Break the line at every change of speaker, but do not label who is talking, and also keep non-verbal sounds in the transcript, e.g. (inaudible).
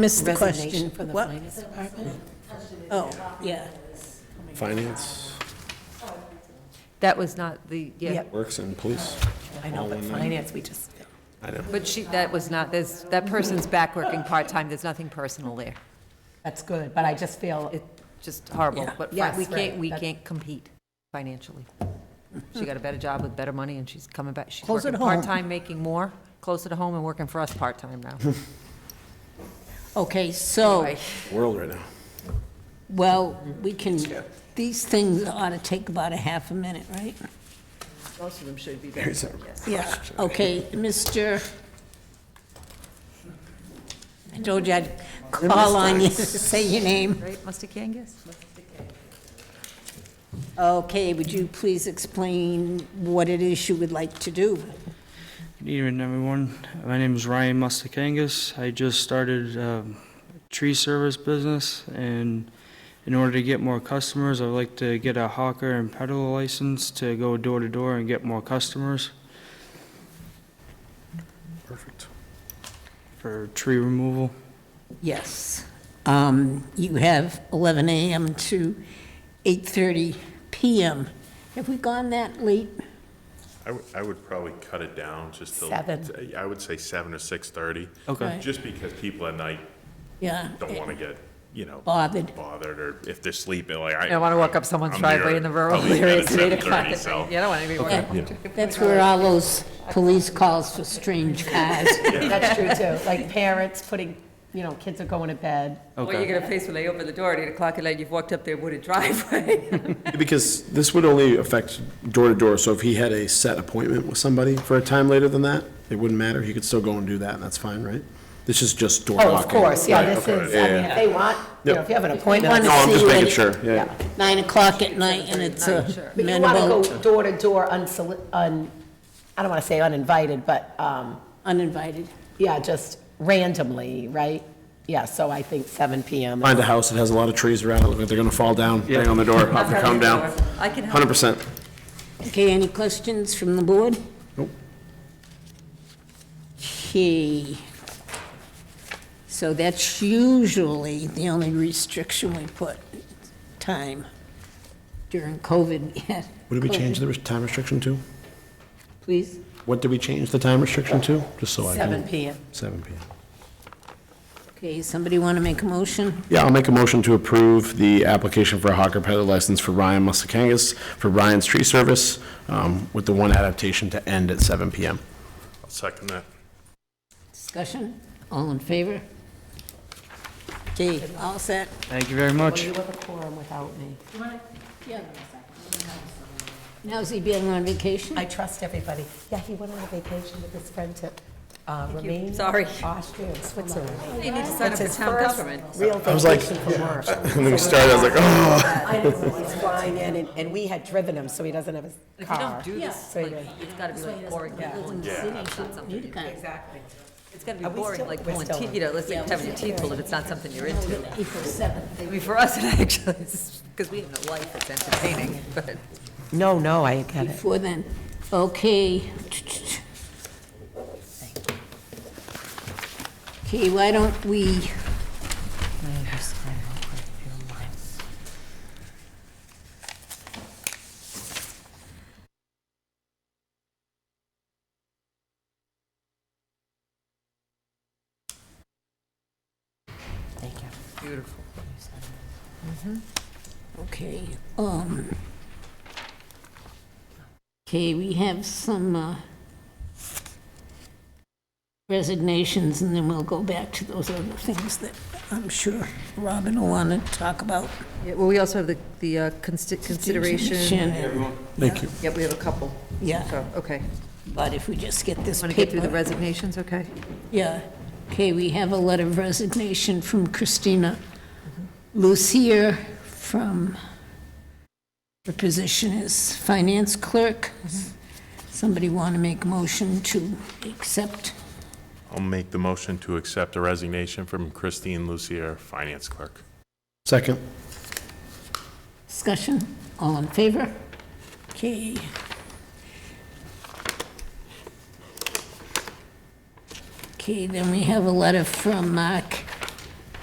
Missed the
Resignation
question.
from the
What?
finance department?
Oh, yeah.
Finance,
That was not the, yeah,
Yep.
Works, and Police.
I know, but finance, we just,
I know.
but she, that was not, there's, that person's back working part-time, there's nothing personal there.
that's good, but I just feel,
It's just horrible,
Yeah.
but fi-
Yes,
we can't,
right.
we
That-
can't compete financially. She got a better job with better money, and she's coming back, she's
Closer
working
to home.
part-time, making more, closer to home and working for us part-time
(laughs)
now.
Okay, so,
Anyway.
World right now.
well, we can, these things ought to take about a half a minute, right?
Most of them should be better,
Here's a-
yes.
Yeah, okay, Mr. I told you I'd call on you to say your name.
Right, Mustakangas?
Okay, would you please explain what it is you would like to do?
Good evening, everyone. My name is Ryan Mustakangas. I just started um, a tree service business, and in order to get more customers, I would like to get a hawker and peddler license to go door to door and get more customers
Perfect.
for tree removal.
Yes. Um, You have 11 a.m. to 8:30 p.m. Have we gone that late?
I would, I would probably cut it down just to.
Seven.
I would say seven or six-thirty.
Okay.
Right.
Just because people at night
Yeah.
don't want to get, you know.
Bothered.
Bothered, or if they're sleeping, like I.
I don't want to walk up someone's
I'm there
driveway in the rural
at least
area at eight
seven
o'clock.
7:30, so.
Yeah, I don't want anybody walking up.
That's where all those police calls for strange cars.
that's true (laughs) too, like parents putting, you know, kids are going to bed.
What you're going to face when they open the door at eight o'clock at night, you've walked up their wooded driveway.
Because this would only affect door to door, so if he had a set appointment with somebody for a time later than that, it wouldn't matter, he could still go and do that, and that's fine, right? This is just door knocking.
Oh, of course, yeah,
Right,
this
okay.
is, I mean, if they want, you know, if you have an appointment.
No, I'm just making sure, yeah, yeah.
Nine o'clock at night, and it's uh, a
But you want to
minimal,
go door to door unsoli, un, I don't want to say uninvited, but, um,
uninvited.
yeah, just randomly, right? Yeah, so I think seven PM.
Find a house that has a lot of trees around it, look like they're gonna fall down, bang on the door, have them come down.
I can help.
Hundred percent.
Okay, any questions from the board?
Nope.
Okay. So that's usually the only restriction we put, time. During COVID, (laughs) we had
What did we change the time restriction to?
Please?
What did we change the time restriction to? Just so I can.
Seven PM.
Seven PM.
Okay, somebody want to make a motion?
Yeah, I'll make a motion to approve the application for a hawker peddler license for Ryan Mustakangas for Ryan's Tree Service, um, with the one adaptation to end at seven PM.
I'll Second that.
Discussion? All in favor? Okay, all set?
Thank you very much.
You have a quorum without me.
Yeah. Now, is he being on vacation?
I trust everybody. Yeah, he went on a vacation with his friend to uh, Romania.
Sorry.
Austria and Switzerland.
(laughs) You need to sign up for
It's his
town
first
government.
real vacation from work.
(laughs) And then we started, I was like, oh.
I know, he's flying in, and- and we had driven him, so he doesn't have his
If you
car.
don't do this,
So
like,
he goes,
it's got to be like boring. like, pulling
Yeah.
teeth out, not something you-
Exactly.
It's got to be
Are we
boring,
still-
like
we're
pulling
still
teeth,
on.
you know, let's say having your teeth pulled if it's not something you're into.
April 7th.
I mean, for us, (laughs) it actually, because we have no life, it's entertaining, (laughs) but.
No, no, I get it.
Before then, okay. Okay, why don't we,
Thank you.
Beautiful.
okay, um, okay, we have some uh, resignations, and then we'll go back to those other things that I'm sure Robin will want to talk about.
Well, we also have the, the uh, consideration.
Thank you.
Yep, we have a couple.
Yeah,
So, okay.
but if we just get this
Want to get through the
paper.
resignations, okay?
Yeah. Okay, we have a letter of resignation from Christina Lucier from, her position is finance clerk. Somebody want to make a motion to accept?
I'll make the motion to accept a resignation from Christine Lucier, Finance Clerk.
Second.
Discussion? All in favor? Okay. Okay, then we have a letter from Mark